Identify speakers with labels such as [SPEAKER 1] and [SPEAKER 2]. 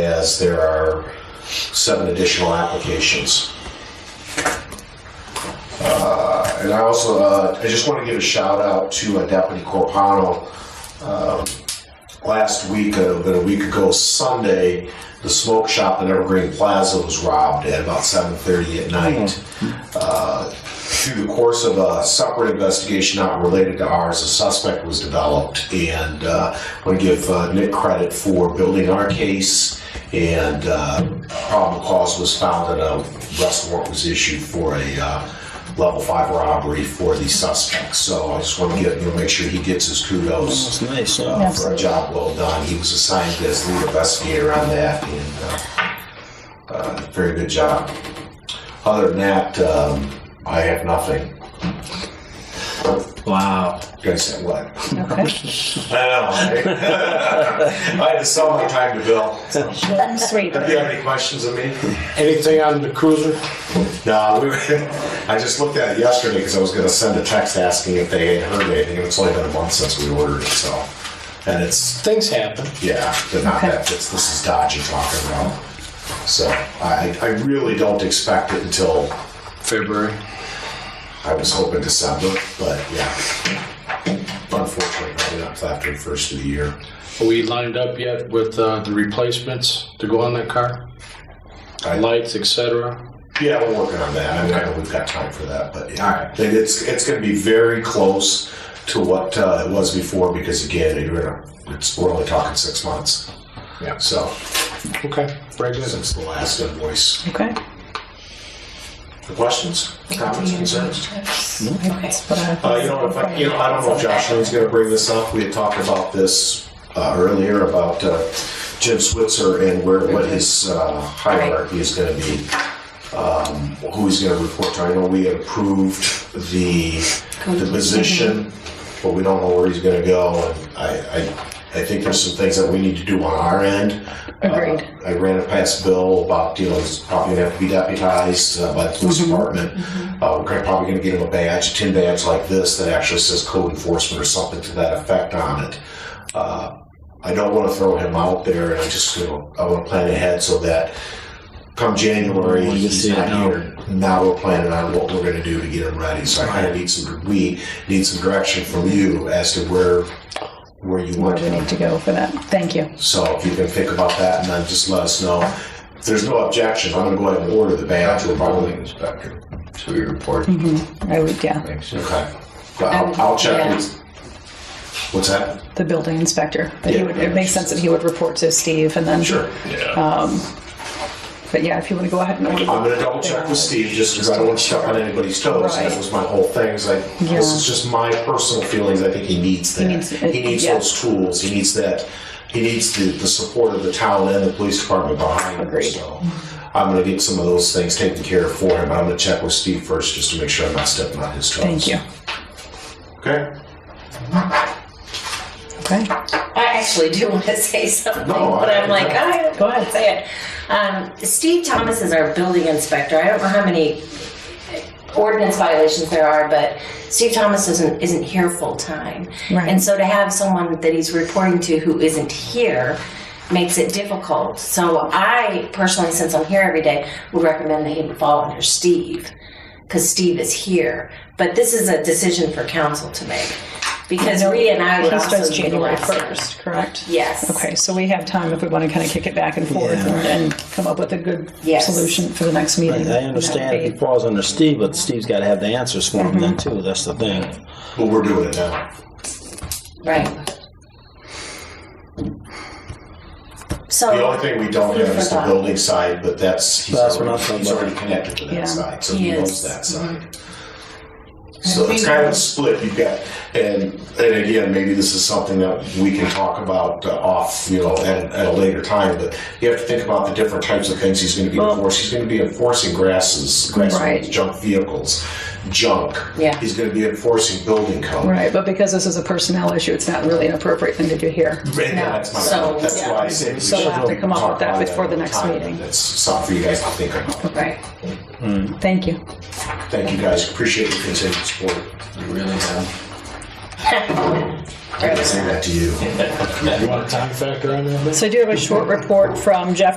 [SPEAKER 1] as there are seven additional applications. Uh, And I also, uh, I just want to give a shout out to uh, Deputy Corpano. Um, Last week, uh, about a week ago Sunday, the smoke shop in Evergreen Plaza was robbed at about 7:30 at night. Uh, Through the course of a separate investigation not related to ours, a suspect was developed. And uh, I want to give uh, Nick credit for building our case. And uh, probable cause was found and a arrest warrant was issued for a uh, level five robbery for the suspect. So I just want to get, you know, make sure he gets his kudos
[SPEAKER 2] It's nice.
[SPEAKER 1] uh,
[SPEAKER 2] huh?
[SPEAKER 1] for a job well done. He was assigned as lead investigator on that, and uh, uh, very good job. Other than that, um, I have nothing.
[SPEAKER 2] Wow.
[SPEAKER 1] You guys said what?
[SPEAKER 3] Okay.
[SPEAKER 1] I know. right? I had to sell my time to Bill.
[SPEAKER 3] Short and sweet.
[SPEAKER 1] Do you have any questions of me?
[SPEAKER 4] Anything on the cruiser?
[SPEAKER 1] No, we were, I just looked at it yesterday because I was going to send a text asking if they had heard anything. It's only been a month since we ordered it, so. And it's
[SPEAKER 4] Things happen.
[SPEAKER 1] Yeah, but not
[SPEAKER 3] Okay.
[SPEAKER 1] that. This, this is Dodge you're talking about. So I, I really don't expect it until
[SPEAKER 2] February.
[SPEAKER 1] I was hoping December, but yeah. Unfortunately, probably not till after the first of the year.
[SPEAKER 4] Are we lined up yet with uh, the replacements to go on that car?
[SPEAKER 1] I-
[SPEAKER 4] Lights, etc.
[SPEAKER 1] Yeah, we're working on that. I mean, I know we've got time for that, but yeah, it- it's it's going to be very close to what uh, it was before because again, you're gonna, it's, we're only talking six months.
[SPEAKER 4] Yeah.
[SPEAKER 1] So
[SPEAKER 4] Okay, very good.
[SPEAKER 1] since the last invoice,
[SPEAKER 3] Okay.
[SPEAKER 1] the questions, comments, concerns.
[SPEAKER 3] That's what I-
[SPEAKER 1] Uh, you know, if I, you know, I don't know if Josh is going to bring this up. We had talked about this uh, earlier about uh, Jim Switzer and where
[SPEAKER 3] Mm-hmm.
[SPEAKER 1] what his uh, hierarchy is going to be, um, who he's going to report to. I know we had approved the the position,
[SPEAKER 3] Mm-hmm.
[SPEAKER 1] but we don't know where he's going to go. And I, I, I think there's some things that we need to do on our end.
[SPEAKER 3] Agreed.
[SPEAKER 1] Uh, I ran it past Bill about, you know, he's probably gonna have to be deputized uh, by the police
[SPEAKER 3] Mm-hmm.
[SPEAKER 1] department. Uh, we're gonna- probably gonna get him a badge, a tin badge like this that actually says code enforcement or something to that effect on it. Uh, I don't wanna throw him out there and I just, you know, I wanna plan ahead so that come January,
[SPEAKER 2] We can
[SPEAKER 1] he's
[SPEAKER 2] see it
[SPEAKER 1] not
[SPEAKER 2] now.
[SPEAKER 1] here. Now we're planning on what we're gonna do to get him ready. So I kinda need some, we need some direction from you as to where, where you
[SPEAKER 3] Where
[SPEAKER 1] want
[SPEAKER 3] we
[SPEAKER 1] him
[SPEAKER 3] need to go for that. Thank you.
[SPEAKER 1] so if you can think about that and then just let us know. If there's no objection, I'm gonna go ahead and order the badge. We're probably,
[SPEAKER 5] building inspector to your report.
[SPEAKER 3] I would, yeah,
[SPEAKER 5] Thanks.
[SPEAKER 1] okay. But I'll, I'll check with, what's that?
[SPEAKER 3] the building inspector. That he
[SPEAKER 1] Yeah,
[SPEAKER 3] would,
[SPEAKER 1] yeah.
[SPEAKER 3] it makes sense that he would report to Steve and then. um,
[SPEAKER 1] Sure.
[SPEAKER 3] But yeah, if you want to go ahead and order.
[SPEAKER 1] I'm gonna double check with Steve just because I don't want to step on anybody's toes. And That
[SPEAKER 3] Right.
[SPEAKER 1] was my whole thing. It's like, this
[SPEAKER 3] Yeah.
[SPEAKER 1] is just my personal feelings. I think he needs that.
[SPEAKER 3] needs it,
[SPEAKER 1] He needs
[SPEAKER 3] yeah.
[SPEAKER 1] those tools. He needs that. He needs the, the support of the town and the police department behind him.
[SPEAKER 3] Agreed.
[SPEAKER 1] So I'm gonna get some of those things taken care of for him. I'm gonna check with Steve first just to make sure I'm not stepping on his toes.
[SPEAKER 3] Thank you.
[SPEAKER 1] Okay.
[SPEAKER 3] Okay.
[SPEAKER 6] I actually do want to say something,
[SPEAKER 1] No,
[SPEAKER 6] but
[SPEAKER 1] I-
[SPEAKER 6] I'm like, I, go ahead, say it. Um, Steve Thomas is our building inspector. I don't know how many uh, ordinance violations there are, but Steve Thomas isn't isn't here full time,
[SPEAKER 3] Right.
[SPEAKER 6] and so to have someone that he's reporting to who isn't here makes it difficult. So I personally, since I'm here every day, would recommend that he would fall under Steve because Steve is here. But this is a decision for council to make because Rita and I would
[SPEAKER 3] He
[SPEAKER 6] also
[SPEAKER 3] starts
[SPEAKER 6] be
[SPEAKER 3] January
[SPEAKER 6] last in.
[SPEAKER 3] 1st, correct?
[SPEAKER 6] Yes.
[SPEAKER 3] Okay, so we have time if we want to kind of kick it back and forth
[SPEAKER 2] Yeah.
[SPEAKER 3] and, and come up with a good
[SPEAKER 6] Yes.
[SPEAKER 3] solution for the next meeting.
[SPEAKER 2] I understand if he falls under Steve, but Steve's got to have the answers for him then too. That's the thing.
[SPEAKER 1] Well, we're doing it now.
[SPEAKER 6] Right. So
[SPEAKER 1] The only thing we don't have is the
[SPEAKER 6] Forgot.
[SPEAKER 1] building side, but that's, he's
[SPEAKER 2] That's what I'm
[SPEAKER 1] already,
[SPEAKER 2] talking
[SPEAKER 1] he's
[SPEAKER 2] about.
[SPEAKER 1] already connected to
[SPEAKER 3] Yeah.
[SPEAKER 1] that side, so
[SPEAKER 6] He
[SPEAKER 1] he
[SPEAKER 6] is. Mm-hmm.
[SPEAKER 1] knows that side. So it's kind of a split, you've got, and, and again, maybe this is something that we can talk about uh, off, you know, at, at a later time, but you have to think about the different types of things he's gonna be
[SPEAKER 3] Well-
[SPEAKER 1] enforcing. He's gonna be enforcing grasses, grass,
[SPEAKER 3] Right.
[SPEAKER 1] junk vehicles, junk.
[SPEAKER 6] Yeah.
[SPEAKER 1] He's gonna be enforcing building code.
[SPEAKER 3] Right, but because this is a personnel issue, it's not really an appropriate thing to do here.
[SPEAKER 1] Right,
[SPEAKER 6] No,
[SPEAKER 1] that's my
[SPEAKER 6] so-
[SPEAKER 1] point. That's
[SPEAKER 6] yeah.
[SPEAKER 1] why I say we
[SPEAKER 3] So we'll
[SPEAKER 1] should
[SPEAKER 3] have to come up
[SPEAKER 1] talk
[SPEAKER 3] with that
[SPEAKER 1] about
[SPEAKER 3] before the
[SPEAKER 1] another
[SPEAKER 3] next
[SPEAKER 1] time.
[SPEAKER 3] meeting.
[SPEAKER 1] That's something for you guys to think about.
[SPEAKER 6] right.
[SPEAKER 3] Thank you.
[SPEAKER 1] Thank you guys. Appreciate your continued support.
[SPEAKER 5] You really have.
[SPEAKER 1] I gotta say that to you.
[SPEAKER 4] You want a time factor on that?
[SPEAKER 3] So I do have a short report from Jeff